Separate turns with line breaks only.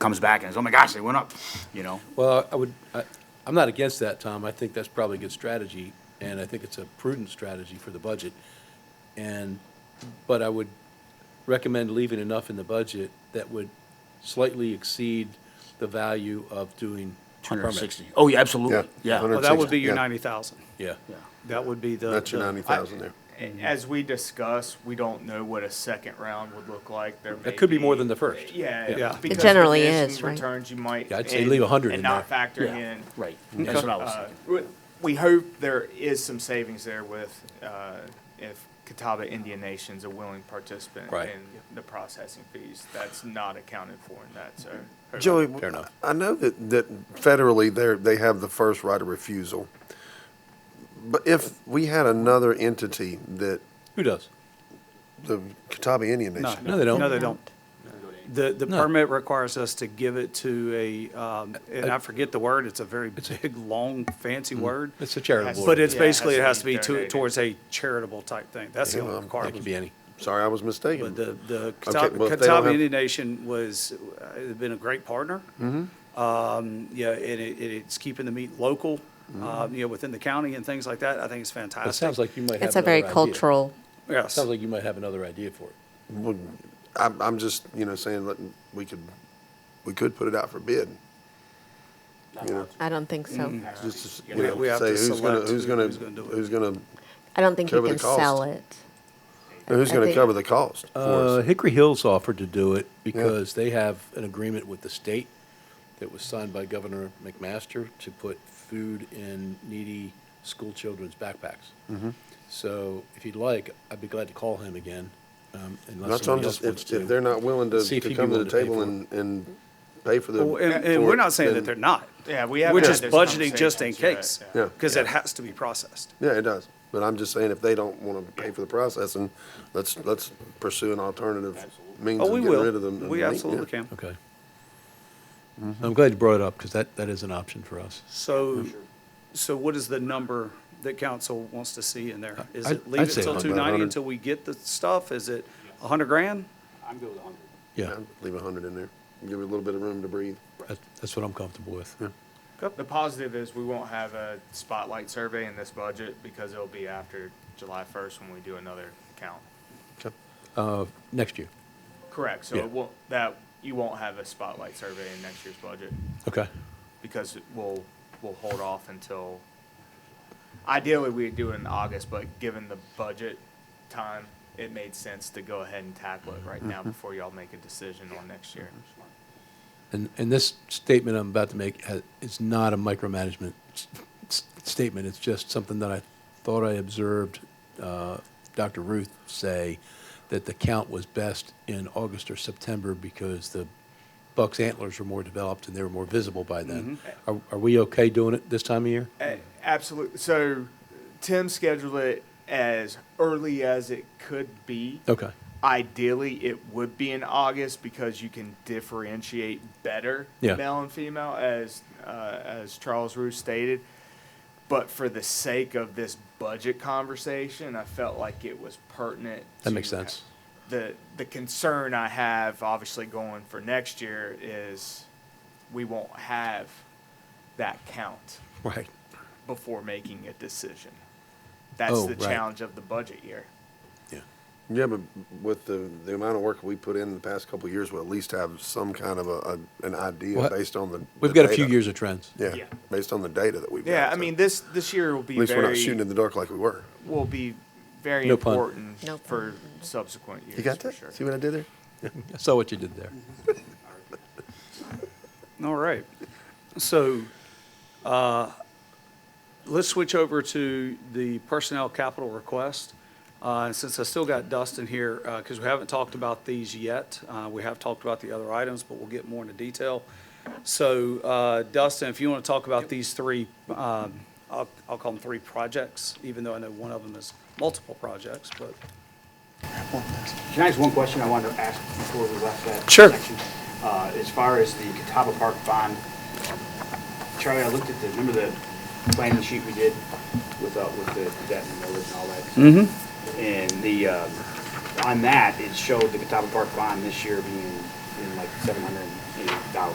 comes back and says, oh my gosh, they went up, you know?
Well, I would, I- I'm not against that, Tom. I think that's probably a good strategy, and I think it's a prudent strategy for the budget. And, but I would recommend leaving enough in the budget that would slightly exceed the value of doing a permit.
160. Oh, yeah, absolutely,
Yeah,
yeah.
hundred-
Well, Oh, that would be your
Yeah.
ninety thousand.
Yeah.
That would be the.
That's your
the-
ninety thousand there.
As we discuss, we don't know what a second round would look like. There may
That could be more than the first.
Yeah,
Yeah.
yeah. because
generally
condition
is, right?
Returns you might.
Yeah, I'd say leave
and-
100 in
And not
there.
factoring
Yeah,
in.
right, that's what I was
uh,
thinking.
we- We hope there is some savings there with, uh, if Catawba Indian Nation's a willing participant
Right.
in the processing fees. That's not accounted for in that, so.
Joey,
Fair enough.
I know that, that federally they're, they have the first right of refusal. But if we had another entity that
Who does?
the Catawba Indian
No.
Nation,
No, they don't.
No, they don't. The, the
No.
permit requires us to give it to a, um, and I forget the word, it's a very big, long, fancy word.
Mm-hmm. It's a charitable.
Has-
But it's
Yeah, it has
basically, it
to
has to
be
be to,
donated.
towards a charitable type thing. That's the
Yeah,
only
um,
It could be
requirement.
any.
sorry, I was
But
mistaken.
the, the
well, if they
Catawba
don't
Catawba
have-
Indian Nation was, uh, had been a great partner.
Mm-hmm.
Um, yeah, and it, and it's keeping the meat local,
Mm-hmm.
um, you know, within the county and things like that. I think it's fantastic.
It sounds like you might have.
It's a very
another idea.
cultural,
Yes.
Sounds like you might have another idea for it.
Well, I'm, I'm just, you know, saying that we could, we could put it out for bid. You know,
I don't think so.
Mm.
just, you
We- we
know,
have
say
to
who's gonna,
select
who's
who-
gonna,
who's gonna do it.
who's gonna,
I don't think you
Cover the
can sell
cost.
it.
who's
I
gonna
think-
cover the cost for
Uh,
us?
Hickory Hills offered to do it because they have an agreement with the state that was signed by Governor McMaster to put food in needy school children's backpacks.
Mm-hmm.
So if you'd like, I'd be glad to call him again, um, unless
That's what I'm
somebody else
just,
wants
if,
to.
if they're not willing to,
See if
to
he'd be
come to the
willing to pay
table
for it.
and, and pay for the.
Well, And, and
for
we're
it,
not saying that
then-
they're not.
Yeah, we have
We're
had
just
those
budgeting just in
conversations,
case,
yeah,
yeah.
because it has to be processed.
Yeah, it does. But I'm just saying, if they don't want to pay for the processing, let's, let's pursue an alternative means of
Oh, we
getting rid of
will.
them.
We
Yeah.
absolutely can.
Okay.
Mm-hmm.
I'm glad you brought it up because that, that is an option for us.
So, so what is the number that council wants to see in there? Is
I'd-
it leave
I'd
it
say
till
about
two ninety
100.
until we get the stuff? Is it a hundred grand?
Yeah,
Leave a hundred in there, give it a little bit of room to breathe.
that- that's what I'm comfortable with.
The positive is we won't have a spotlight survey in this budget because it'll be after July first when we do another count.
Uh, Next year.
Correct, so
Yeah.
it won't, that, you won't have a spotlight survey in next year's budget
Okay.
because we'll, we'll hold off until, ideally, we'd do it in August, but given the budget time, it made sense to go ahead and tackle it right now before y'all make a decision on next year.
And, and this statement I'm about to make ha- is not a micromanagement s- s- statement. It's just something that I thought I observed uh, Dr. Ruth say that the count was best in August or September because the buck's antlers were more developed and they were more visible by then. Are, are we okay doing it this time of year?
A- Absolutely. So Tim scheduled it as early as it could be.
Okay.
Ideally, it would be in August because you can differentiate better
Yeah.
male and female, as uh, as Charles Roos stated. But for the sake of this budget conversation, I felt like it was pertinent.
That makes
to-
sense.
The the concern I have, obviously, going for next year is we won't have that count
Right.
before making a decision. That's
Oh,
the
right.
challenge of the budget year.
Yeah.
Yeah, but with the, the amount of work we put in the past couple of years, we'll at least have some kind of a, a- an idea
Well,
based on the.
We've
the
got a few
data.
years of trends.
Yeah,
Yeah.
based on the data that we've. got,
Yeah, I
so
mean this this year will be
At least we're not
very
shooting in the dark like we were.
will be very
No pun.
important
No
for subsequent years.
You got
for
that?
sure.
See what I did there?
I saw what you did there.
All right. So, uh, let's switch over to the personnel capital request. Uh, and since I still got Dustin here, uh, cause we haven't talked about these yet. Uh, we have talked about the other items, but we'll get more into detail. So, uh, Dustin, if you want to talk about these three, um, I'll, I'll call them three projects, even though I know one of them is multiple projects, but.
Uh, Can I ask one question I wanted to ask before we left that?
Sure.
section? Uh, As far as the Catawba Park bond, um, Charlie, I looked at the, remember the planning sheet we did with, uh, with the debt and millage and all that? Mm-hmm. And the, um, on that, it showed the Catawba Park bond this year being in like seven hundred and